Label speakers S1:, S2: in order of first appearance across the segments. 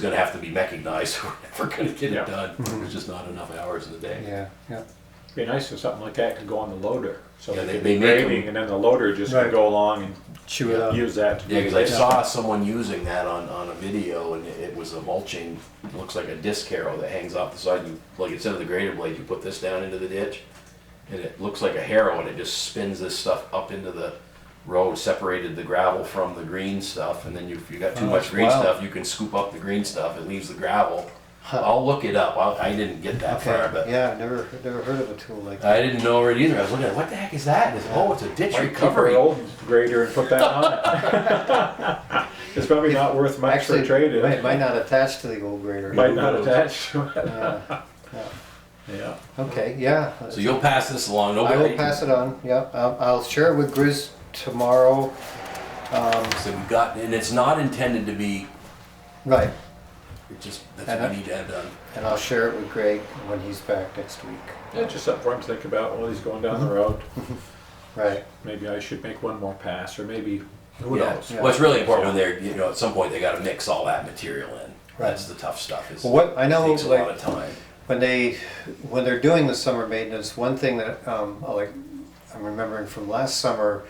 S1: gonna have to be mechanized, we're never gonna get
S2: Yeah.
S1: it done,
S3: Mm-hmm.
S1: there's just not enough hours in the day.
S3: Yeah, yeah.
S2: Be nice if something like that could go on the loader, so
S1: Yeah,
S2: they
S1: they-
S2: could
S1: they make
S2: be
S1: 'em.
S2: grading, and then the loader just
S3: Right.
S2: could go along
S3: Chew it
S2: and
S3: up.
S2: use that. to
S1: Yeah,
S2: do
S1: cause I
S2: this.
S1: saw someone using that on, on a video and it it was a mulching, looks like a disc harrow that hangs off the side, you, like instead of the grader blade, you put this down into the ditch. And it looks like a harrow and it just spins this stuff up into the road, separated the gravel from the green stuff, and then you, if you got too
S3: Oh,
S1: much
S3: that's
S1: green
S3: wild.
S1: stuff, you can scoop up the green stuff, it leaves the gravel.
S3: Huh.
S1: I'll look it up, I, I didn't get that far, but.
S3: Okay, yeah, never, never heard of a tool like that.
S1: I didn't know it either. I was looking at what the heck is that? And it's, oh, it's a ditch
S2: Might keep our
S1: recovery.
S2: old grader and put that on it. It's probably not worth much for
S3: Actually,
S2: trade-in.
S3: might, might not attach to the old grader.
S2: Might not attach to it.
S3: Uh,
S2: Yeah.
S3: Okay, yeah.
S1: So you'll pass this along.
S3: I
S1: Nobody.
S3: will pass it on, yeah. I'll, I'll share it with Grizz tomorrow. Um,
S1: So we got, and it's not intended to be.
S3: right,
S1: It just that's what we need to have done.
S3: and I'll share it with Greg when he's back next week.
S2: Yeah, just something for him to think about while he's going down the road.
S3: Right,
S2: Maybe I should make one more pass, or maybe, who
S1: yeah.
S2: knows?
S1: Well, it's really important when they're you know at some point they got to mix all that material in. That's the tough stuff. Is
S3: Well, what- I know,
S1: takes a
S3: like-
S1: lot of time.
S3: when they, when they're doing the summer maintenance, one thing that, um, I like, I'm remembering from last summer,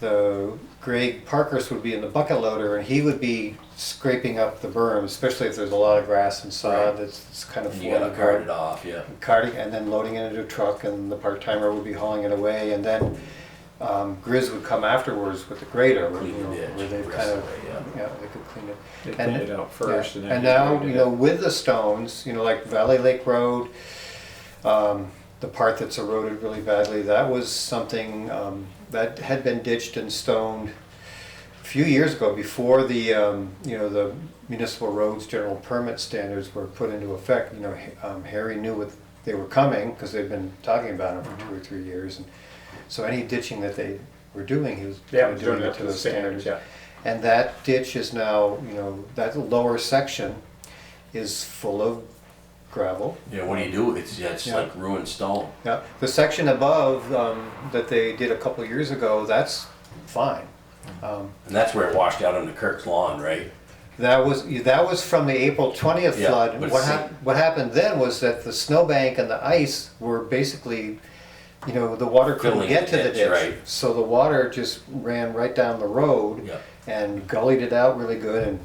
S3: the Greg Parkers would be in the bucket loader and he would be scraping up the berm, especially if there's a lot of grass and sod
S1: Right.
S3: that's, that's kind of
S1: And you got
S3: forming.
S1: to cart it off. Yeah.
S3: carting and then loading it into a truck and the part-timer would be hauling it away and then um, Grizz would come afterwards with the grader where, you
S1: Clean the
S3: know,
S1: ditch,
S3: where they'd
S1: rest
S3: kind of,
S1: away, yeah.
S3: yeah, they could clean it.
S2: They
S3: And-
S2: cleaned it out first and
S3: yeah.
S2: then.
S3: And now,
S2: graded
S3: you
S2: it.
S3: know, with the stones, you know, like Valley Lake Road, um, the part that's eroded really badly, that was something um, that had been ditched and stoned a few years ago before the, um, you know, the municipal roads general permit standards were put into effect. You know, Ha- um, Harry knew what they were coming because they'd been talking about them for
S2: Mm-hmm.
S3: two or three years. and So any ditching that they were doing, he was
S2: Yeah,
S3: kinda
S2: we're doing it to the
S3: those
S2: standards, yeah.
S3: and that ditch is now, you know, that lower section is full of gravel.
S1: Yeah. What do you do? It's yeah, it's
S3: Yeah.
S1: like ruined stone.
S3: Yeah, the section above um, that they did a couple years ago, that's fine. Um,
S1: And that's where it washed out onto Kirk's lawn, right?
S3: That was, that was from the April twentieth
S1: Yeah,
S3: flood.
S1: but
S3: What
S1: see-
S3: hap, what happened then was that the snowbank and the ice were basically, you know, the water couldn't
S1: Filling
S3: get to
S1: the
S3: the
S1: ditch, right.
S3: ditch. So the water just ran right down the road.
S1: Yeah.
S3: and gullied it out really good and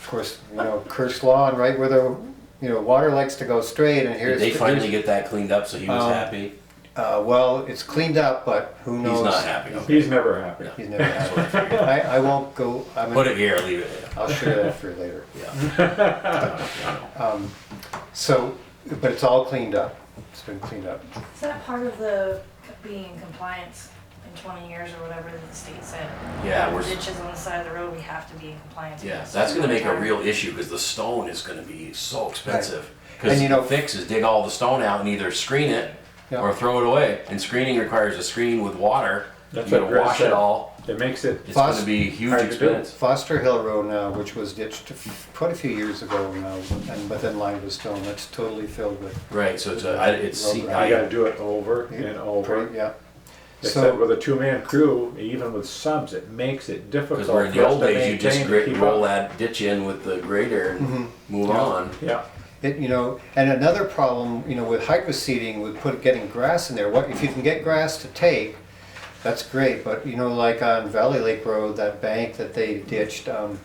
S3: of course you know Kirsch Lawn right where the you know water likes to go straight and
S1: Did
S3: here's
S1: they
S3: the-
S1: finally get that cleaned up? So he was
S3: Um,
S1: happy.
S3: uh, well it's cleaned up but who knows
S1: He's not happy. Okay.
S2: He's never happy.
S3: he's never happy I, I won't go I'm
S1: Put it here. Leave it. There.
S3: I'll share that for you later
S1: Yeah.
S3: so but it's all cleaned up it's been cleaned up
S4: Is that part of the being in compliance in twenty years or whatever that the state said?
S1: Yeah, we're-
S4: Ditches on the side of the road, we have to be in compliance. with
S1: Yeah,
S4: this.
S1: that's gonna make a real issue, because the stone is gonna be so expensive. Because
S3: And you know-
S1: the fix is dig all the stone out and either screen it
S3: Yeah.
S1: or throw it away. And screening requires a screen with water. You
S2: That's
S1: gotta
S2: what Greg
S1: wash it
S2: said.
S1: all.
S2: It makes it,
S1: It's
S3: Plus-
S1: gonna be a huge
S2: Hard to do.
S1: expense.
S3: Foster Hill Road now, which was ditched quite a few years ago now, and but then lined with stone, that's totally filled with,
S1: Right, so it's, a- I- it's, see-
S3: Rubber.
S2: you gotta
S1: I-
S2: do it over and over.
S3: yeah.
S2: Except
S3: So,
S2: with a two-man crew, even with subs, it makes it difficult
S1: because
S2: for
S1: where
S2: us
S1: in
S2: to
S1: the old days, you just
S2: maintain to
S1: grit,
S2: keep
S1: roll
S2: up.
S1: that ditch in with the grader
S3: Mm-hmm.
S1: and move on.
S2: Yeah,
S3: it, you know, and another problem, you know, with hydro seeding, with put, getting grass in there, what, if you can get grass to take, that's great, but you know, like on Valley Lake Road, that bank that they ditched, um,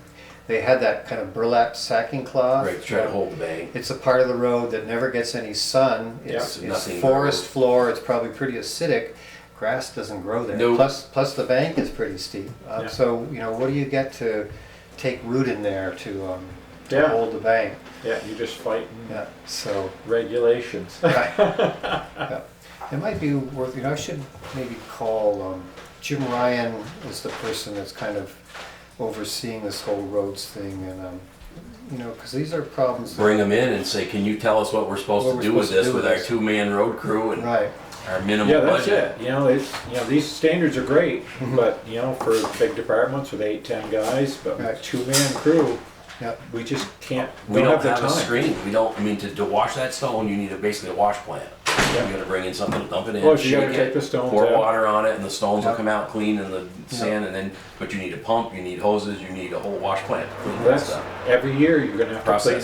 S3: they had that kind of burlap sacking cloth. Um,
S1: Right, try to hold the bank.
S3: It's a part of the road that never gets any sun. It's,
S1: Yeah.
S3: it's
S1: Nothing.
S3: forest floor. It's probably pretty acidic. Grass doesn't grow there.
S1: Nope.
S3: Plus, plus the bank is pretty steep. Uh,
S2: Yeah.
S3: So you know, what do you get to take root in there to, um, to
S2: Yeah.
S3: hold the bank?
S2: yeah, you're just fighting
S3: Yeah. So
S2: regulations.
S3: right. yeah. it might be worth. You know, I should maybe call um, Jim Ryan is the person that's kind of overseeing this whole roads thing, and um, you know, because these are problems. That,
S1: Bring them in and say, can you tell us what we're
S3: What
S1: supposed
S3: we're
S1: to do with
S3: supposed
S1: this,
S3: to do
S1: with
S3: with
S1: our
S3: this.
S1: two-man road crew and
S3: right.
S1: our minimal
S2: Yeah,
S1: budget?
S2: that's it, you know, it's, you know, these standards are great,
S3: Mm-hmm.
S2: but, you know, for big departments with eight, ten guys, but
S3: Right.
S2: with two-man crew,
S3: Yeah.
S2: we just can't,
S1: We don't have
S2: the
S1: a
S2: time.
S1: screen, we don't, I mean, to, to wash that stone, you need a, basically a wash plant. You gotta bring in something to dump it in.
S2: Well, you gotta
S1: shake it,
S2: take the stones
S1: Pour
S2: out.
S1: water on it and the stones will
S3: Yeah.
S1: come out clean and the sand and then, but you need a pump, you need hoses, you need a whole wash plant. to clean that
S2: That's,
S1: stuff.
S2: every year you're gonna have to clean
S1: Process.